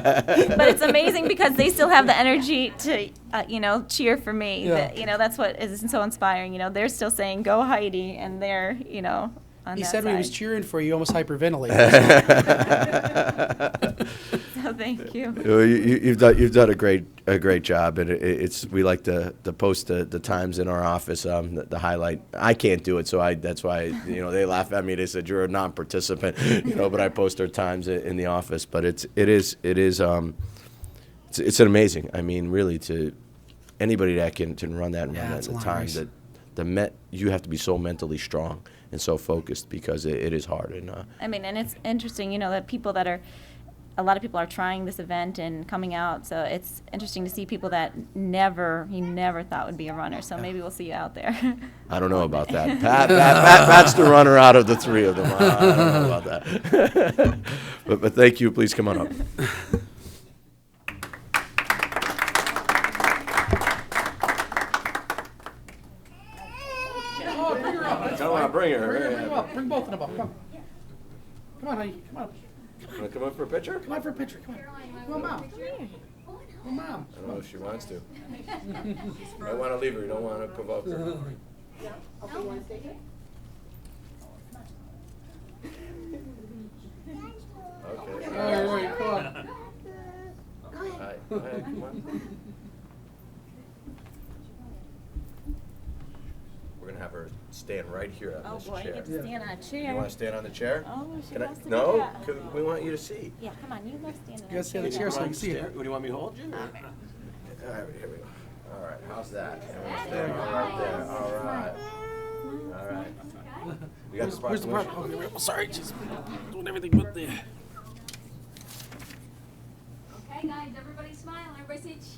but it's amazing because they still have the energy to, uh, you know, cheer for me. Yeah. That- you know, that's what is so inspiring. You know, they're still saying "Go Heidi," and they're, you know, on He that said side. when he was cheering for you, he almost hyperventilated. so Oh, thank you. Well, you- you- You've done, you've done a great, a great job, and it- it's, we like to, to post the, the times in our office, um, the, the highlight. I can't do it, so I, that's why, you know, they laugh at me, they said, you're a non-participant, you know, but I post our times i- in the office, but it's, it is, it is, um, it's, it's an amazing, I mean, really, to, anybody that can, can run that and Yeah, run that it's in a the long time, race. that, the met, you have to be so mentally strong and so focused, because it, it is hard, and, uh, I mean, and it's interesting, you know, that people that are, a lot of people are trying this event and coming out. So it's interesting to see people that never, you never thought would be a runner. So maybe we'll see you out there. I don't know about that. Pat, Pat, Pat, Pat's the runner out of the three of them. I I don't know about that. but, but thank you. Please come on up. Oh, Oh, bring her up. That's Come on, fine. bring her. Bring her, bring Yeah. her up. Bring both of them up. Come. Come on, honey. Come on. Want to come up for a picture? Come on for a picture. Come on. Come on, mom. Come on, mom. I don't know if Oh, she wants to. I want to leave her. You don't want to provoke her. Okay. All right, all right, come on. Hi. Hi, come on. We're going to have her stand right here on Oh this boy, you chair. get to stand on a You chair. want to stand on the chair? Oh, she Can I- wants to do No, that. 'Cause we want you to see. Yeah, come on, you love standing You gotta on stand on the chair so I can see What, it. do you want me to hold you? All right, here we go. All right, how's that? Almost there, all right there, all right. All right. We got the Where's the prop? proclamation. Okay, well, sorry, just doing everything but the. Okay, guys, everybody smile. Everybody say cheese.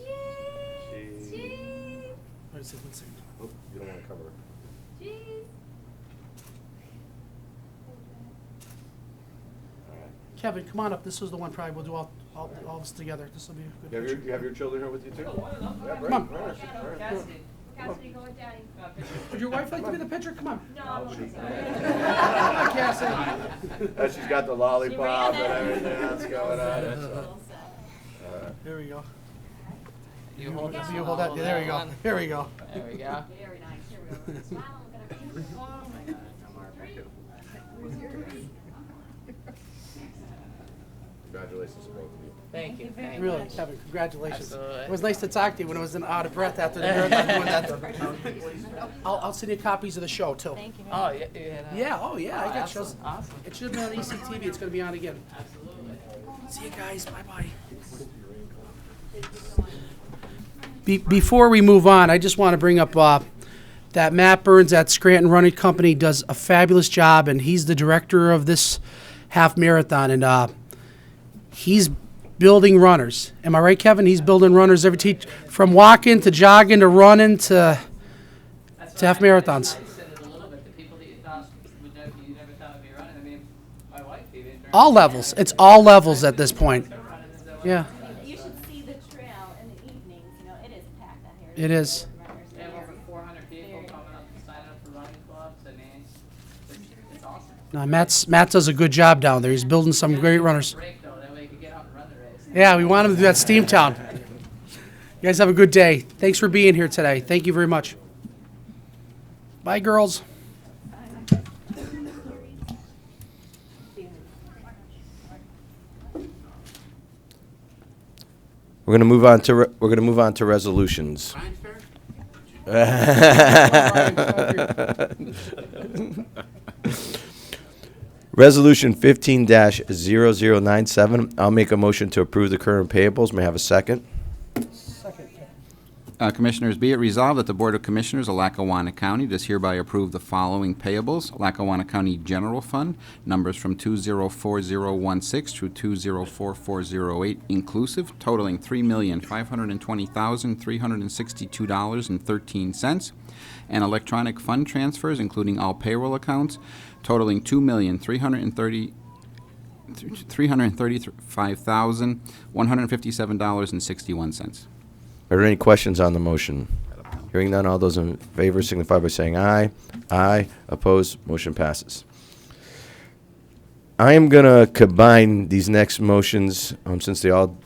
Cheese. Cheese. Wait a second, one second. Oh, You don't want to cover. it. All right. Kevin, come on up. This is the one probably we'll do all, all, all this together. This will be a You have good your, picture. you have your children here with you too? Yeah, bring Come them, bring them, bring them. Cassidy, go with daddy. Would your wife like to be in the picture? Come on. No, I'm okay. Come on, Cassie. Uh, She's got the lollipop and everything that's going on. that's all. There we go. You hold that. You hold that. There we go. There we go. There we go. Very nice. Here we go. Smile. look at her. Oh, my God. Three. Congratulations to both of you. Thank you. Thank you. Really, Kevin, congratulations. Absolutely. It was nice to talk to you when I was in out of breath after the marathon doing that. I'll, I'll send you copies of the show too. Thank you. Oh, yeah, you had a- Yeah, oh yeah, I got shows. Awesome, awesome. It should have been on E ECTV, it's gonna be on again. See you guys, bye-bye. Be- Before we move on, I just want to bring up uh, that Matt Burns at Scranton Running Company does a fabulous job, and he's the director of this half marathon, and uh, he's building runners. Am I right, Kevin? He's building runners every teach from walking to jogging to running to to That's what half I mean, it's marathons. how You said it a little bit, the people that you thought would know, you never thought would be running, I mean, my wife even. during- all levels. It's all levels at this point. They're running as though- Yeah. You should see the trail in the evenings, you know, it is packed out here. It is. They have over four hundred people coming up to sign up for running clubs, I mean, it's, it's awesome. No, Uh, Matt's Matt does a good job down there. He's building some great runners. Break though, that way you can get out and run the race. Yeah, we want him to do that Steam Town. You guys have a good day. Thanks for being here today. Thank you very much. Bye, girls. We're gonna move on to, re- we're gonna move on to resolutions. Resolution fifteen 97 zero zero nine seven, I'll make a motion to approve the current payables, may I have a second? Uh, Commissioners, be it resolved that the Board of Commissioners of Lackawanna County does hereby approve the following payables. Lackawanna County General Fund, numbers from 204016 through 204408 inclusive, totaling $3,520,362.13. And electronic fund transfers, including all payroll accounts, totaling 2330000 $335,157.61. Are there any questions on the motion? Hearing none, all those in favor signify by saying aye. Aye, opposed, motion passes. I am gonna combine these next motions, um, since they all